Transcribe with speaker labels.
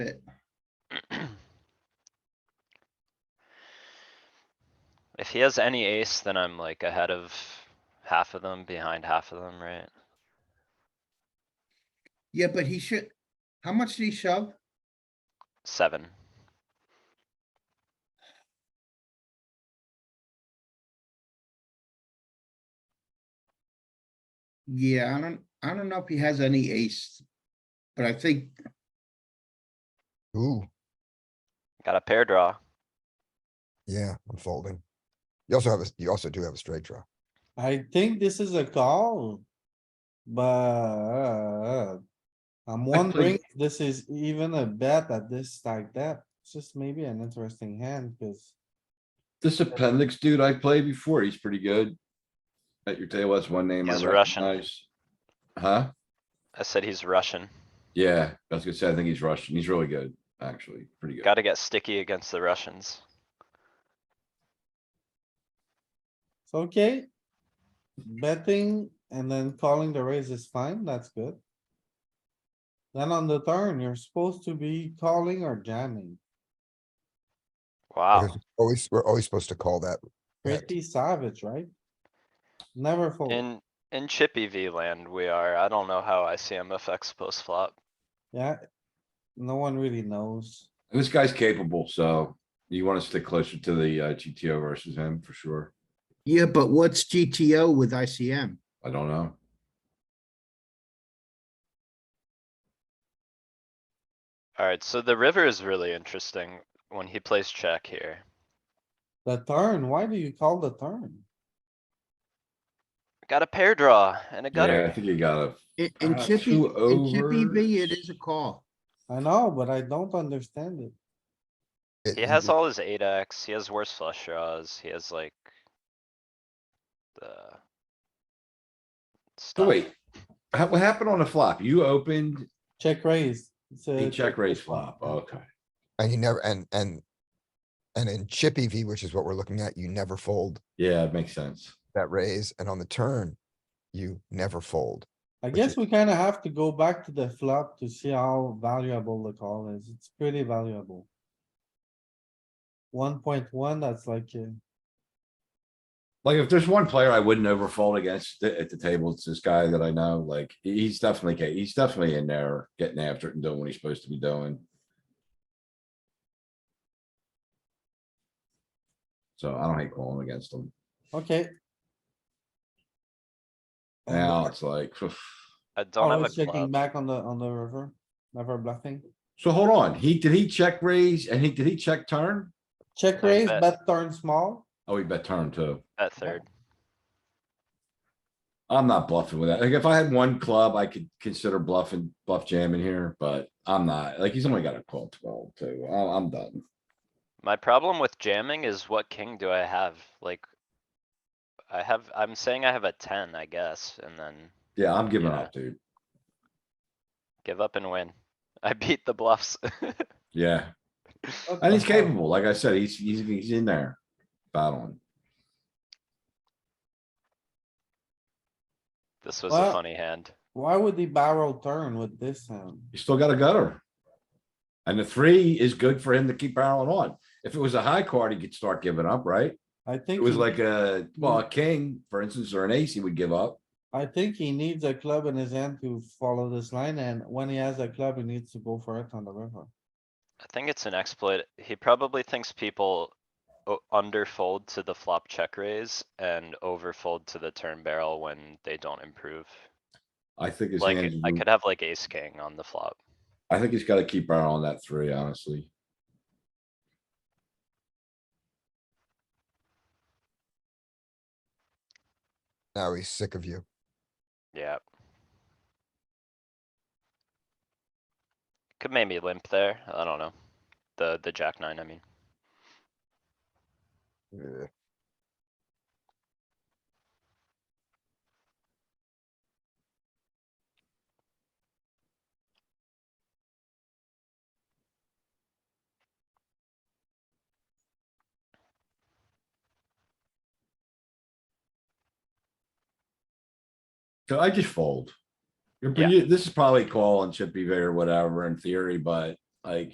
Speaker 1: it.
Speaker 2: If he has any ace, then I'm like ahead of half of them, behind half of them, right?
Speaker 1: Yeah, but he should, how much did he shove?
Speaker 2: Seven.
Speaker 1: Yeah, I don't, I don't know if he has any ace. But I think,
Speaker 3: Ooh,
Speaker 2: Got a pair draw.
Speaker 3: yeah, I'm folding. You also have, a you also do have a straight draw.
Speaker 4: I think this is a call. But I'm wondering if this is even a bet at this like that. It's just maybe an interesting hand because
Speaker 5: This appendix dude I played before, he's pretty good. At your table, that's one name I
Speaker 2: He's Russian.
Speaker 5: recognize. Huh?
Speaker 2: I said he's Russian.
Speaker 5: Yeah, I was gonna say, I think he's Russian. He's really good, actually, pretty good.
Speaker 2: Gotta get sticky against the Russians.
Speaker 4: it's okay. Betting and then calling the raise is fine. That's good. Then on the turn, you're supposed to be calling or jamming.
Speaker 2: Wow.
Speaker 3: Because Always, we're always supposed to call that. Correct.
Speaker 4: Pretty savage, right? Never fold.
Speaker 2: In, in chippy V land, we are. I don't know how ICM affects post flop.
Speaker 4: Yeah. No one really knows.
Speaker 5: This guy's capable, so you wanna stick closer to the uh, GTO versus him for sure.
Speaker 1: yeah, but what's GTO with ICM?
Speaker 5: I don't know.
Speaker 2: Alright, so the river is really interesting when he plays check here.
Speaker 4: The turn, why do you call the turn?
Speaker 2: Got a pair draw and a
Speaker 5: Yeah, I
Speaker 2: gutter.
Speaker 5: think you gotta,
Speaker 1: In, in
Speaker 5: Uh,
Speaker 1: Chippy,
Speaker 5: two
Speaker 1: in Chippy V, it
Speaker 5: overs.
Speaker 1: is a call.
Speaker 4: I know, but I don't understand it.
Speaker 3: It-
Speaker 2: He
Speaker 5: Mm-hmm.
Speaker 2: has all his eight X, he has worse flush draws, he has like. The.
Speaker 5: oh
Speaker 2: Stuff.
Speaker 5: wait. Ha- What happened on the flop? You opened
Speaker 4: Check raise. It's
Speaker 5: a
Speaker 4: a
Speaker 5: check raise flop, okay.
Speaker 3: And you never, and, and, and in chippy V, which is what we're looking at, you never fold
Speaker 5: Yeah, it makes sense.
Speaker 3: that raise, and on the turn, you never fold.
Speaker 4: I
Speaker 3: which
Speaker 4: guess
Speaker 3: is-
Speaker 4: we kinda have to go back to the flop to see how valuable the call is. It's pretty valuable. One point one, that's like, uh,
Speaker 5: Like, if there's one player I wouldn't overfold against th- at the table, it's this guy that I know, like, he- he's definitely, ca- he's definitely in there getting after it and doing what he's supposed to be doing. So I don't hate calling against him.
Speaker 4: okay. And
Speaker 5: Now
Speaker 4: then
Speaker 5: it's like, phew.
Speaker 2: I don't have
Speaker 4: always
Speaker 2: a
Speaker 4: Checking
Speaker 2: club.
Speaker 4: back on the, on the river, never bluffing.
Speaker 5: so hold on, he, did he check raise and he, did he check turn?
Speaker 4: Check
Speaker 2: I
Speaker 4: raise,
Speaker 2: bet.
Speaker 4: bet turn small.
Speaker 5: Oh, he bet turn too.
Speaker 2: At third,
Speaker 5: I'm not bluffing with that. Like, if I had one club, I could consider bluffing, bluff jamming here, but I'm not. Like, he's only got a call twelve too. I- I'm done.
Speaker 2: my problem with jamming is what king do I have, like? I have, I'm saying I have a ten, I guess, and then
Speaker 5: Yeah, I'm giving
Speaker 2: Yeah.
Speaker 5: up, dude.
Speaker 2: give up and win. I beat the bluffs.
Speaker 5: Yeah.
Speaker 4: What
Speaker 5: And
Speaker 4: the
Speaker 5: he's
Speaker 4: hell?
Speaker 5: capable, like I said, he's, he's, he's in there battling.
Speaker 2: This was
Speaker 4: Well-
Speaker 2: a funny hand.
Speaker 4: Why would he barrel turn with this hand?
Speaker 5: He's still got a gutter. And the three is good for him to keep barreling on. If it was a high card, he could start giving up, right?
Speaker 4: I
Speaker 5: It
Speaker 4: think.
Speaker 5: was
Speaker 4: he-
Speaker 5: like a, well, a king, for instance, or an ace, he would give up.
Speaker 4: I think he needs a club in his hand to follow this line, and when he has a club, he needs to go for it on the river.
Speaker 2: I think it's an exploit. He probably thinks people o- underfold to the flop check raise and overfold to the turn barrel when they don't improve.
Speaker 5: I think his
Speaker 2: Like,
Speaker 5: hands,
Speaker 2: I could have like ace king on the flop.
Speaker 5: I think he's gotta keep barreling that three, honestly.
Speaker 3: Now he's sick of you.
Speaker 2: Yeah. Could maybe limp there. I don't know. The, the jack nine, I mean.
Speaker 3: Ugh.
Speaker 5: So I just fold. You're,
Speaker 2: Yeah.
Speaker 5: pretty- this is probably call and chip V or whatever in theory, but like,